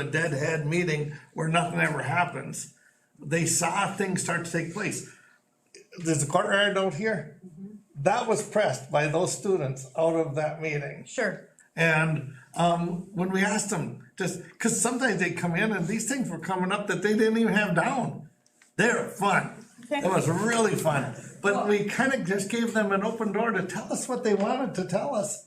a deadhead meeting where nothing ever happens. They saw things start to take place. There's a courtyard out here. That was pressed by those students out of that meeting. Sure. And um, when we asked them, just because sometimes they come in and these things were coming up that they didn't even have down. They're fun. It was really fun. But we kind of just gave them an open door to tell us what they wanted to tell us.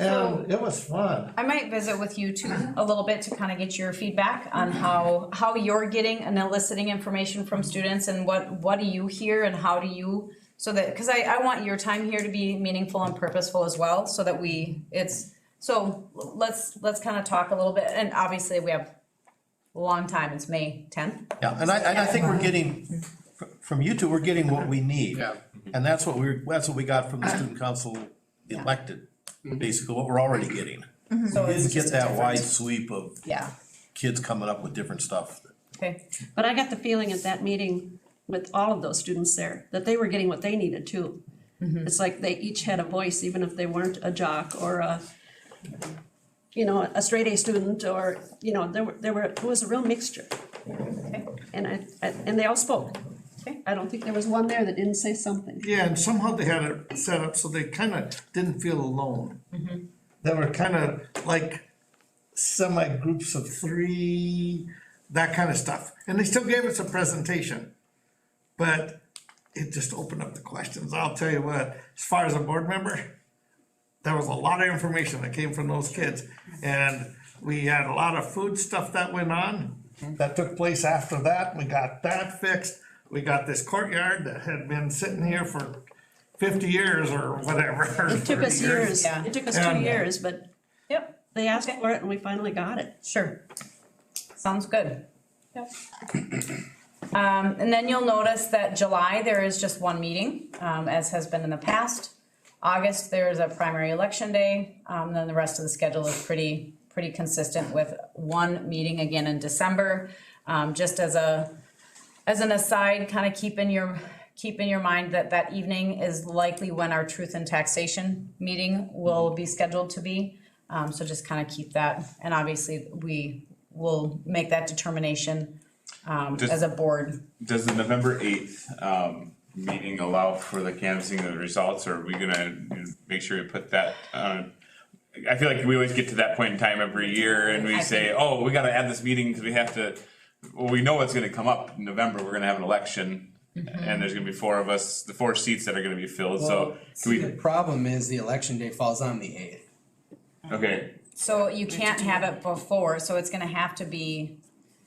And it was fun. I might visit with you too a little bit to kind of get your feedback on how how you're getting and eliciting information from students and what what do you hear and how do you so that because I, I want your time here to be meaningful and purposeful as well so that we it's so let's let's kind of talk a little bit and obviously we have a long time it's May 10th Yeah, and I, and I think we're getting, fr- from you two, we're getting what we need. Yeah. And that's what we're, that's what we got from the student council elected, basically, what we're already getting. so Didn't it's get just that wide sweep of yeah kids coming up with different stuff. okay But I got the feeling at that meeting with all of those students there, that they were getting what they needed too. It's like they each had a voice, even if they weren't a jock or a, you know, a straight A student or, you know, there were, there were, it was a real mixture. And I, I- and they all spoke. Okay. I don't think there was one there that didn't say something. Yeah, and somehow they had it set up so they kind of didn't feel alone. They were kind of like semi groups of three, that kind of stuff. And they still gave us a presentation. But it just opened up the questions. I'll tell you what, as far as a board member, there was a lot of information that came from those kids. And we had a lot of food stuff that went on, that took place after that. We got that fixed. We got this courtyard that had been sitting here for fifty years or whatever. It took us years, it took us Yeah. two years, but yep they asked for it and we finally got it. Sure. Sounds good. Um, and then you'll notice that July, there is just one meeting, um, as has been in the past. August, there is a primary election day, um, then the rest of the schedule is pretty, pretty consistent with one meeting again in December. Um, just as a, as an aside, kind of keep in your, keep in your mind that that evening is likely when our truth and taxation meeting will be scheduled to be. Um, so just kind of keep that, and obviously, we will make that determination, um, Just- as a board. Does the November eighth, um, meeting allow for the canvassing of the results, or are we gonna you know, make sure we put that, uh? I feel like we always get to that point in time every year and we say, oh, we gotta add this meeting because we have to, well, we know it's gonna come up in November, we're gonna have an election. And there's gonna be four of us, the four seats that are gonna be filled, so, can The we, problem is the election day falls on the eighth. okay, So you can't have it before, so it's gonna have to be,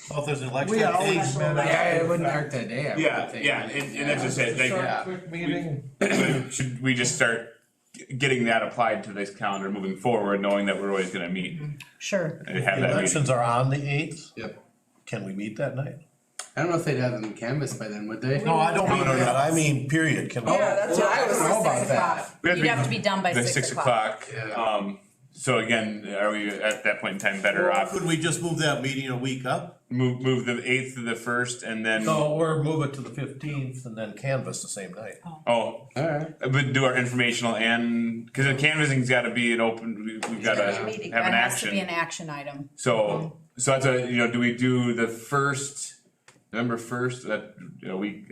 Well, if there's an election. We always met Yeah, after it wouldn't hurt that day, I would yeah, think. yeah, and, and that's just it, like. a quick meeting. should we just start g- getting that applied to this calendar moving forward, knowing that we're always gonna meet sure, and have The that meeting? Elections are on the eighth, Yep. can we meet that night? I don't know if they'd have them canvassed by then, would they? No, I don't mean no, no. that, I mean, period, can we? that's what I was. How about that? We you'd have to be done by the six o'clock. Yeah. Um, so again, are we at that point in time better off, Could we just move that meeting a week up? move, move the eighth to the first and then, No, or move it to the fifteenth and then canvass the same night. oh, Alright, but do our informational and, cause the canvassing's gotta be an open, we- we've gotta Yeah. have Meeting. an That has to be an action action. item. So, so that's a, you know, do we do the first, November first, that, you know, we,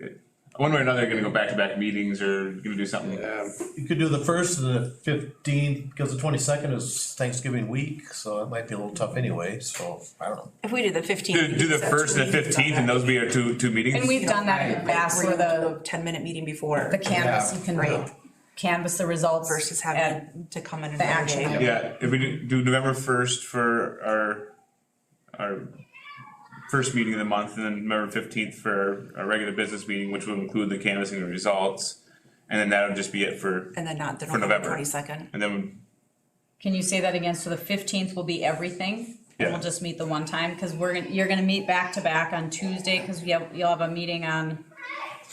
one way or another, gonna go back to back meetings or gonna do something. yeah, You could do the first and the fifteenth, because the twenty-second is Thanksgiving week, so it might be a little tough anyway, so, I don't know. If we do the fifteenth. Do, do the first and the fifteenth and those be our two, two meetings? And we've done that in the past where the, Ten minute meeting before. the canvas, you can Right. canvas the results. Versus and- having to come in the another action day. item. Yeah, if we do do November first for our, our first meeting of the month, and then November fifteenth for our regular business meeting, which will include the canvassing of results. And then that'll just be it for, And then not the For November November. twenty second. and then, Can you say that again? So the fifteenth will be everything? And Yeah. We'll just meet the one time, because we're, gonna you're gonna meet back to back on Tuesday, because we have, you'll have a meeting on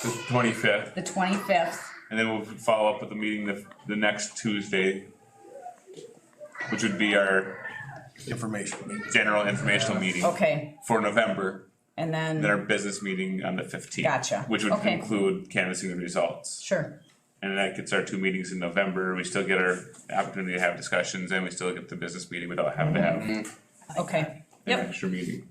the twenty-fifth, the twenty-fifth. and then we'll follow up with the meeting the, the next Tuesday. Which would be our Information meeting. general informational meeting. Okay, For November, and then our then, business meeting on the fifteenth. Gotcha. Which would Okay. include canvassing the results. sure, And that gets our two meetings in November, we still get our opportunity to have discussions, and we still get the business meeting without having to have. okay. an Yep. extra meeting.